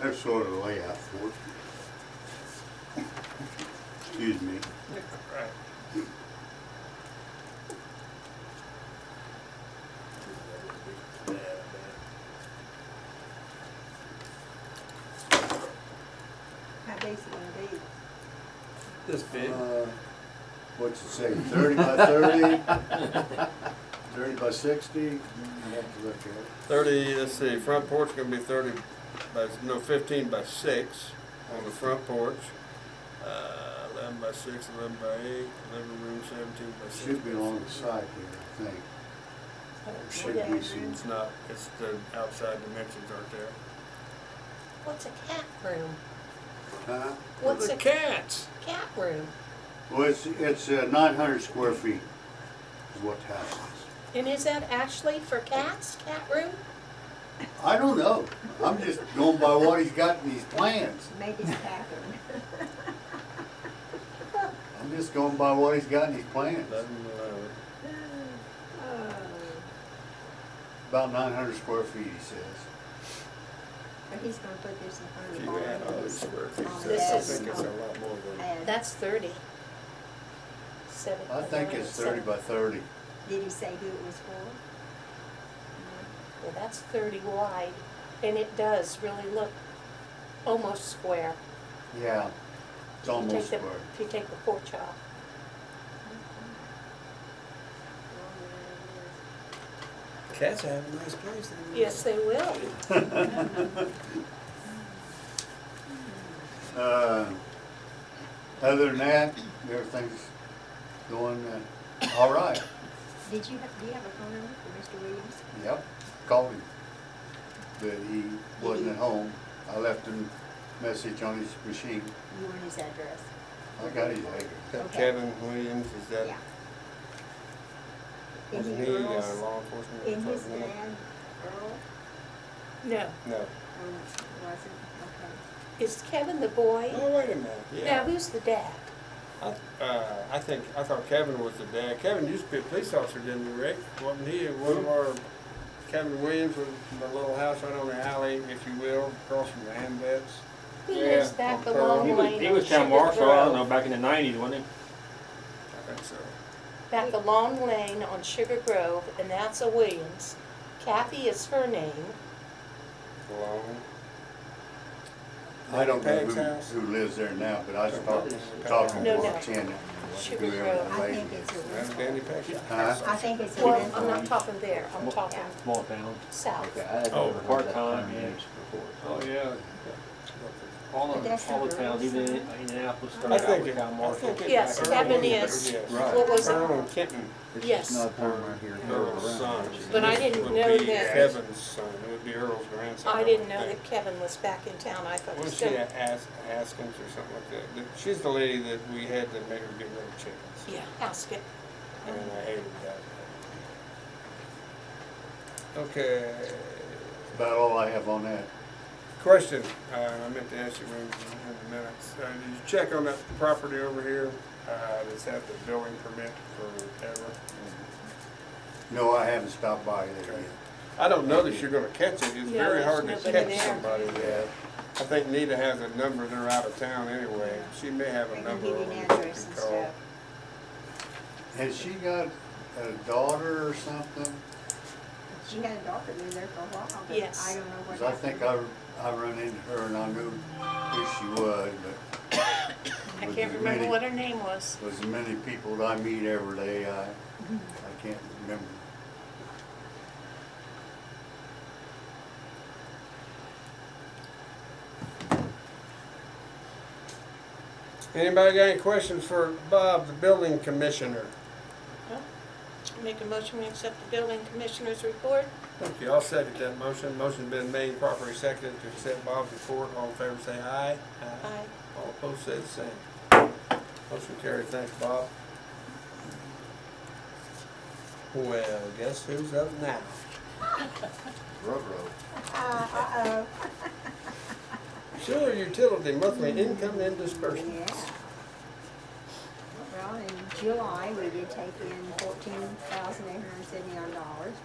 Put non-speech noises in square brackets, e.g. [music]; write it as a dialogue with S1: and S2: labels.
S1: That's sort of the layout for it. Excuse me.
S2: Right.
S3: How decent are these?
S2: This big.
S1: Uh, What's it say, thirty by thirty? Thirty by sixty? You have to look at it.
S4: Thirty, let's see, front porch gonna be thirty by, no, fifteen by six on the front porch. Uh, eleven by six, eleven by eight, eleven room, seventeen by
S1: It
S4: six.
S1: should be along the side here, I think. Or should we see?
S4: It's not, it's the outside dimensions aren't there.
S5: What's a cat room?
S1: Huh?
S5: What's
S2: the
S5: a
S2: cats?
S5: cat room?
S1: Well, it's, it's uh, nine hundred square feet is what the house is.
S5: And is that actually for cats, cat room?
S1: I don't know. I'm just going by what he's got in these plans.
S3: Maybe it's Catherine.
S1: I'm just going by what he's got in his plans.
S4: Eleven, eleven.
S3: Oh,
S1: About nine hundred square feet, he says.
S3: [laughs] But he's gonna put this in front of
S4: If
S3: the
S4: you
S3: barn.
S4: add all these square feet,
S3: Oh,
S4: I
S5: that's
S4: think it's a
S3: small.
S4: lot more than.
S3: Add.
S5: That's thirty. Seven.
S1: I think it's thirty by thirty.
S3: Did he say who it was for?
S5: Well, that's thirty wide, and it does really look almost square.
S1: Yeah. It's
S5: If you take
S1: almost
S5: the-
S1: square.
S5: If you take the porch off.
S4: Cats have a nice place. don't they?
S5: Mm. Yes, they will.
S1: [laughs] Uh, Other than that, everything's going, uh, all right.
S3: Did you have, do you have a phone number for Mr. Williams?
S1: Yep, called him, but he wasn't at home. I left him a message on his machine.
S3: You want his address?
S1: I got his address.
S4: Got
S3: Okay.
S4: Kevin Williams, is that,
S3: Yeah.
S4: was
S3: Isn't
S4: he
S3: it
S4: uh,
S3: Earl's-
S4: law enforcement?
S3: Isn't his
S4: person?
S3: dad Earl?
S5: No,
S4: No.
S3: Or was it?
S5: is Kevin the boy?
S4: Oh, wait a minute,
S5: Now,
S4: yeah.
S5: who's the dad?
S4: I, uh, I think, I thought Kevin was the dad. Kevin used to be a police officer, didn't he, Rick? Wasn't he one of our, Kevin Williams was the little house right on the alley, if you will, across from the Ambets?
S5: He
S4: Yeah,
S5: lives back
S4: on
S5: along
S6: He
S4: Pearl.
S6: was,
S5: Lane.
S6: he
S5: on
S6: was town
S5: Sugar
S6: marshal, I don't
S5: Grove.
S6: know, back in the nineties, wasn't
S4: I think so.
S5: Back along Lane on Sugar Grove, and that's a Williams. Kathy is her name.
S4: Long.
S1: I don't know
S4: Peg's
S1: who,
S4: house.
S1: who lives there now, but I was talking,
S4: Okay.
S1: talking to
S5: No, no.
S1: her tenant,
S5: Sugar
S1: whoever
S5: Grove.
S1: the
S3: I
S1: lady
S3: think
S1: is.
S3: it's a
S4: That's
S3: rental.
S4: Danny Peck's
S1: Huh?
S3: I think it's a
S5: Well, I'm
S3: rental.
S5: not talking there, I'm talking
S6: he? Small town.
S5: south.
S4: Oh,
S6: part-time, yeah. Oh, yeah. All
S3: But
S6: of,
S3: that's
S6: all
S3: not
S6: the towns,
S3: really
S6: even
S3: something.
S6: in Indianapolis
S4: I
S6: started out
S4: think
S6: with
S4: it,
S6: town
S4: I
S6: marshal.
S4: think it.
S5: Yes,
S4: Earl
S5: Kevin
S4: Williams,
S5: is-
S4: yes.
S6: Right.
S5: What was
S4: Earl
S5: it?
S4: and Kitten,
S5: Yes.
S4: Earl's son.
S5: But I didn't
S4: Would
S5: know
S4: be
S5: that-
S4: Kevin's son, it would be Earl's grandson.
S5: I
S4: would
S5: didn't know
S4: think.
S5: that Kevin was back in town, I thought he
S4: Was
S5: was
S4: she
S5: still.
S4: at As- Askins or something like that? That- She's the lady that we had to make her get rid of chickens.
S5: Yeah, ask it.
S4: And I hated that. Okay,
S1: About all I have on that.
S4: question, uh, I meant to ask you when, in a minute. Uh, did you check on that property over here, uh, that's had the building permit forever?
S1: No, I haven't stopped by there yet.
S4: I don't know that you're gonna catch it, it's
S5: No,
S4: very hard to
S5: there's nobody
S4: catch
S5: there.
S4: somebody there. I think Nita has a number, they're out of town anyway, she may have
S3: I
S4: a
S3: can
S4: number
S3: give
S4: over
S3: you
S4: there
S3: an
S4: that you
S3: address
S4: can
S3: and
S4: call.
S3: stuff.
S1: Has she got a daughter or something?
S3: She had a daughter lived there for a while, but
S5: Yes.
S3: I don't know what
S1: Cause I
S3: happened.
S1: think I, I run into her and I knew who she was, but
S5: [coughs] I
S1: Was
S5: can't
S1: it
S5: remember
S1: Minnie?
S5: what her name was.
S1: there's many people that I meet every day, I, I can't remember.
S4: Anybody got any questions for Bob, the building commissioner?
S5: Make a motion, we accept the building commissioner's report.
S4: Thank you, I'll second that motion. Motion's been made, properly seconded to accept Bob's report. All in favor, say aye.
S5: Aye.
S4: All opposed, say the same. Motion carried, thanks, Bob. Well, guess who's up now?
S1: Railroad.
S3: Uh,
S4: Sewer utility monthly income and
S3: uh-oh,
S4: disbursement.
S3: yeah. Well, in July, we did take in fourteen thousand eight hundred seventy-nine dollars,